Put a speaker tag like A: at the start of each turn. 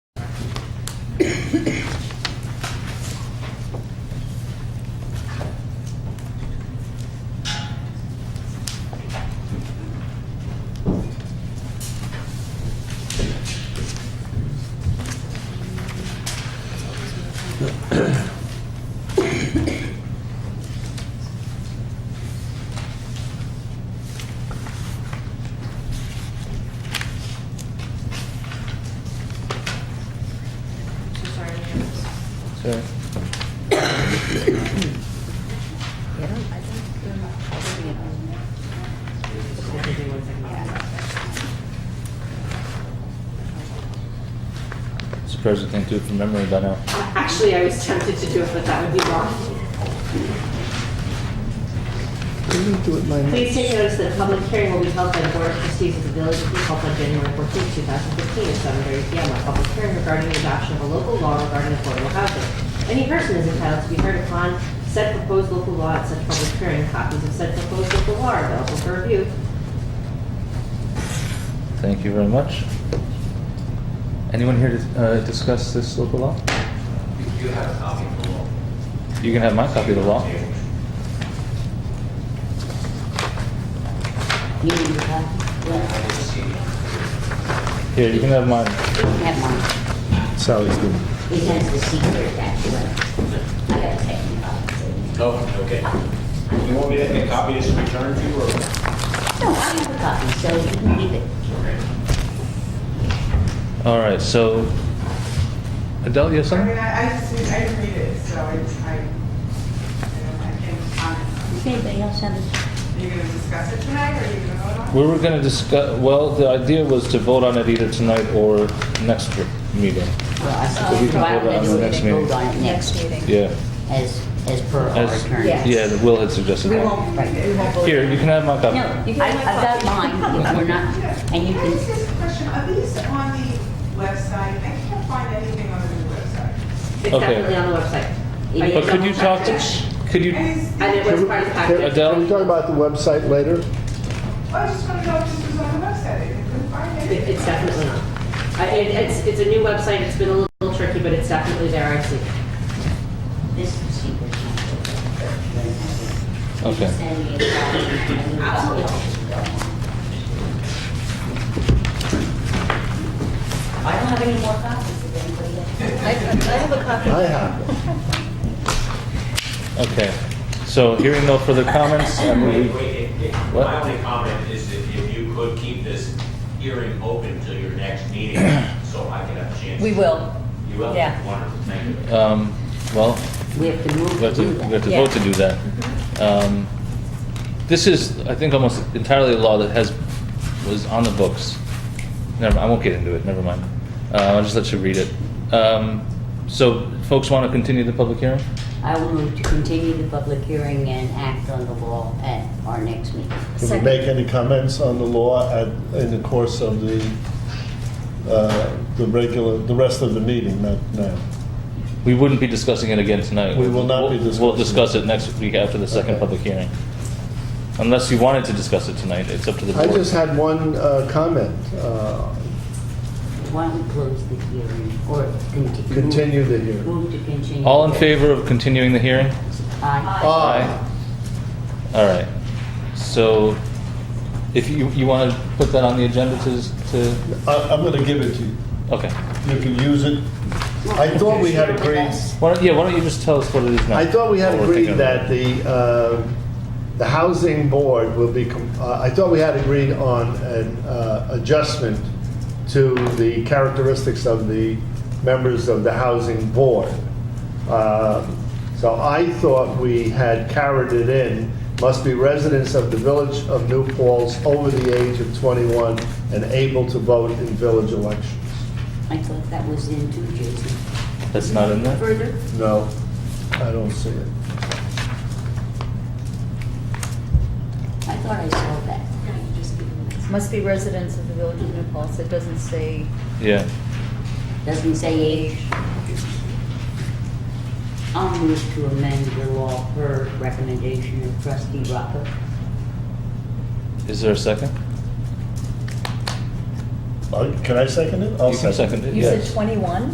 A: So sorry, we have this.
B: Sorry. Surprised you can't do it from memory by now.
A: Actually, I was tempted to do it, but that would be wrong. Please take notice that a public hearing will be held by the Board of Trustees of the Village of Eagle on January 14, 2015, at 7:30 PM. A public hearing regarding the adoption of a local law regarding affordable housing. Any person is entitled to be heard upon said proposed local law at such public hearing. Copies of said proposed local law are available for review.
B: Thank you very much. Anyone here to uh, discuss this local law?
C: You have a copy of the law.
B: You can have my copy of the law.
D: You need to have, well,
C: I will see.
B: Here, you can have mine.
D: you can have mine.
B: Sally's good.
D: It has the secret that you have. I gotta take it off.
C: Oh, okay. You want me to make a copy of this and return to you, or?
D: No, I have a copy, so you can leave it.
B: All right, so Adele, you have
E: I
B: something?
E: mean, I, I just, I didn't read it, so it's, I, I don't- I can't comment.
D: Does anybody else have it?
E: Are you gonna discuss it tonight, or are you gonna vote on it?
B: We were going to discuss, well, the idea was to vote on it either tonight or next meeting.
D: Well, I
B: So we
D: said,
B: can
D: why
B: vote on
D: don't
B: it
D: we do
B: next
D: it,
B: meeting.
D: vote on it next,
B: Yeah.
D: as, as per our
B: As-
D: attorney.
A: Yes.
B: Yeah, Will had suggested
E: We
B: that.
E: won't read it.
B: Here, you can have my
D: No,
B: copy.
D: I- I've
A: can have my
D: got
A: copy.
D: mine, we're not, and you
E: Can I just
D: can,
E: ask a question? Are these on the website? I can't find anything on the new website.
A: It's
B: Okay.
A: definitely on the website.
D: It is.
B: But could you talk to, could you,
E: And it's,
A: And it
E: I
A: was part of the package.
B: Adele?
F: Can we talk about the website later?
E: just wanna know if this was on the website, I couldn't find
A: It-
E: anything.
A: It's definitely not. I- it- It's, it's a new website, it's been a little tricky, but it's definitely there, I see.
D: this is secret.
B: Okay.
D: Send me a copy. and we'll- I don't have any more copies of anybody else.
F: I have it.
B: okay. So hearing no further comments, I
C: Wait,
B: move we-
C: wait, it- it-
B: What?
C: My only comment is that if you could keep this hearing open till your next meeting, so I can have a chance.
G: We will.
C: You will?
G: Yeah.
C: Wonderful, thank you.
B: um, well,
D: We have to move
B: we have
D: to
B: to,
D: do
B: we have
D: that.
B: to vote to do that. Um, This is, I think, almost entirely a law that has, was on the books. Never, I won't get into it, never mind. Uh, I'll just let you read it. Um, So folks want to continue the public hearing?
D: I will move to continue the public hearing and act on the law at our next meeting.
F: Did we make any comments on the law at, in the course of the, uh, the regular, the rest of the meeting, not now?
B: We wouldn't be discussing it again tonight.
F: We will not be
B: We'll- We'll discuss
F: discussing
B: it next week after the second
F: Okay.
B: public hearing. Unless you wanted to discuss it tonight, it's up to the
F: I
B: board.
F: just had one uh, comment. Uh,
D: Why don't we close the hearing or continue?
F: Continue the hearing.
D: Move to continue.
B: All in
D: the-
B: favor of continuing the hearing?
D: Aye.
F: Aye.
B: All right. So if you, you want to put that on the agenda to, to,
F: I- I'm going to give it to you.
B: okay.
F: You can use it. I thought we had agreed,
B: Why don't, yeah, why don't you just tell us what it is now?
F: I thought we had
B: what we're
F: agreed
B: thinking
F: that
B: about.
F: the, uh, the housing board will be, com- uh, I thought we had agreed on an uh, adjustment to the characteristics of the members of the housing board. Um, So I thought we had carried it in, must be residents of the village of New Falls over the age of 21 and able to vote in village elections.
D: I thought that was in too, Jason.
B: That's not in there?
A: Further?
F: No, I don't see it.
D: I thought I saw that.
G: Must be residents of the village of New Paltz. It doesn't say
B: Yeah.
D: Doesn't say age. I'll move to amend the law per recommendation of trustee Rocker.
B: Is there a second?
F: Uh, Can I second it? I'll
B: You can second it,
G: You said
B: yes.
G: 21?